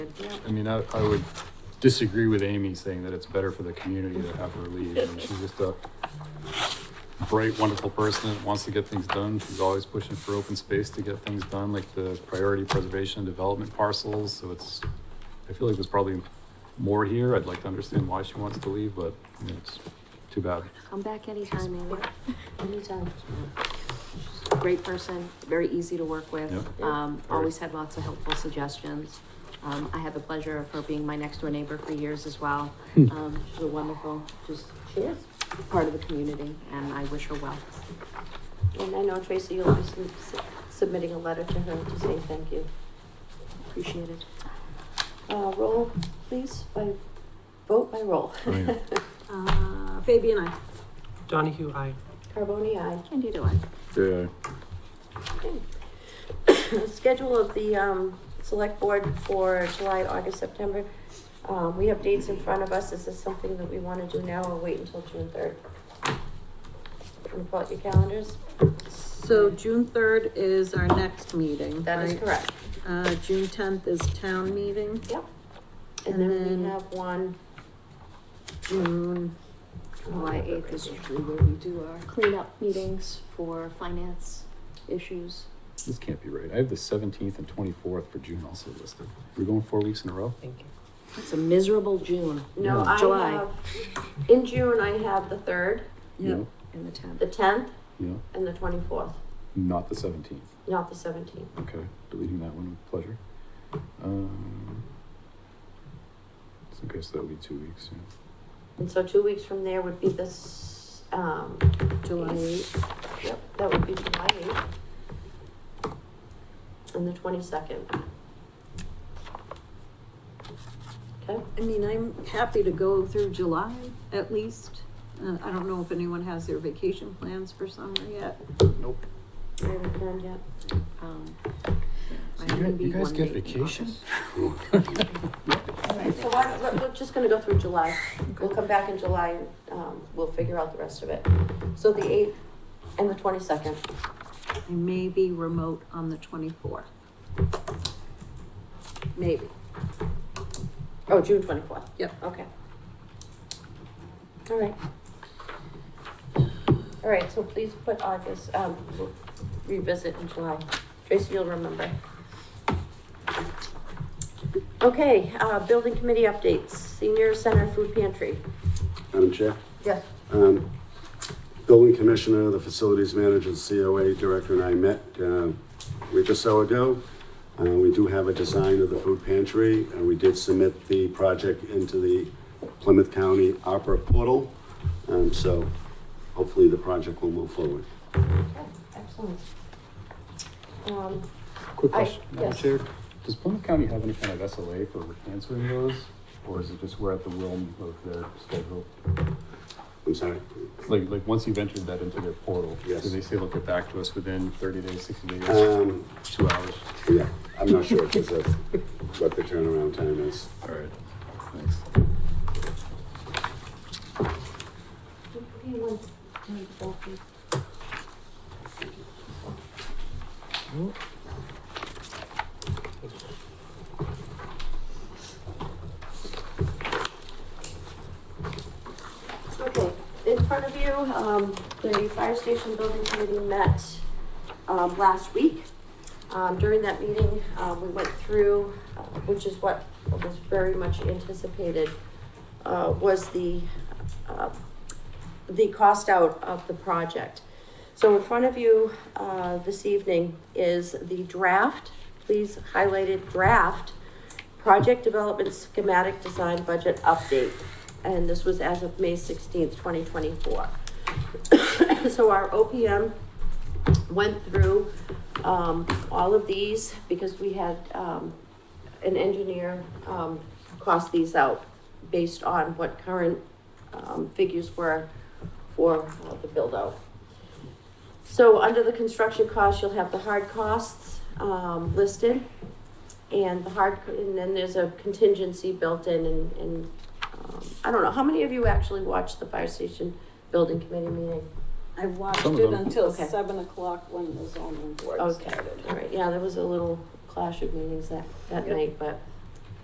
I mean, I, I would disagree with Amy saying that it's better for the community to have her leave. I mean, she's just a bright, wonderful person that wants to get things done. She's always pushing for open space to get things done, like the priority preservation and development parcels, so it's, I feel like there's probably more here. I'd like to understand why she wants to leave, but you know, it's too bad. I'm back anytime, Amy. Anytime. Great person, very easy to work with. Yep. Um, always had lots of helpful suggestions. Um, I had the pleasure of her being my next door neighbor for years as well. Hmm. Um, she's a wonderful, just, she is part of the community and I wish her well. And I know Tracy, you'll be sub- sub- submitting a letter to her to say thank you. Appreciate it. Uh, roll, please, by, vote by roll. Oh, yeah. Uh, Fabian, I. Donahue, I. Carboni, aye. Candida one. Yeah. The Schedule of the, um, select board for July, August, September. Um, we have dates in front of us. Is this something that we wanna do now or wait until June third? Can you pull out your calendars? So June third is our next meeting, That is right? correct. Uh, June tenth is town meeting, Yep. And And then we then- have one. June, July eighth is usually where we do our cleanup meetings for finance issues. This can't be right. I have the seventeenth and twenty-fourth for June also listed. We're going four weeks in a row? Thank you. It's a miserable June No, I July. have, in June, I have the third, No, in the town. the tenth, no, and the twenty-fourth, not the seventeenth. not the seventeenth. Okay, deleting that one with pleasure. Um, so I guess that'll be two weeks. Yeah. And so two weeks from there would be this, um, July eighth. yep, that would be July eighth. And the twenty-second. Okay, I mean, I'm happy to go through July at least. Uh, I don't know if anyone has their vacation plans for summer yet. I haven't planned yet. Um, So I you may guys- be you guys one get date in vacation? August. So why, don't- let- we're just gonna go through July, we'll come back in July, and, um, we'll figure out the rest of it. So the eighth and the twenty-second, I may be remote on the twenty-fourth. Maybe, oh, June twenty-fourth. yep. Okay. All right. All right, so please put August, um, we'll revisit in July. Tracy, you'll remember. Okay, uh, building committee updates, senior center food pantry. Madam Chair, Yes. um, Building Commissioner, the Facilities Manager, the COA Director, and I met uh, a week or so ago. Uh, We do have a design of the food pantry, and we did submit the project into the Plymouth County Opera Portal. Um, So hopefully the project will move forward. Excellent. Um, Quick I- question, Madam yes. Chair, does Plymouth County have any kind of SLA for answering those? Or is it just we're at the will of their schedule? I'm sorry. Like, like, once you've entered that into their portal, do Yes. they say they'll get back to us within thirty days, sixty days, Um, two hours? Yeah, I'm not sure if it's a- what the turnaround time is. All right, thanks. Okay, in front of you, um, the fire station building committee met, um, last week. Um, during that meeting, uh, we went through, uh, which is what was very much anticipated, uh, was the, uh, the cost out of the project. So in front of you, uh, this evening is the draft, please highlighted draft, project development schematic design budget update. And this was as of May sixteenth, twenty twenty-four. So our OPM went through, um, all of these because we had, um, an engineer, um, cost these out based on what current, um, figures were for uh, the build-out. So under the construction costs, you'll have the hard costs, um, listed. And the hard, and then there's a contingency built in and, and, um, I don't know, how many of you actually watched the fire station building committee meeting? I watched Some of it them. until Okay. seven o'clock when the zoning board Okay, started. all right, yeah, there was a little clash of meetings that, that Yep. night, but,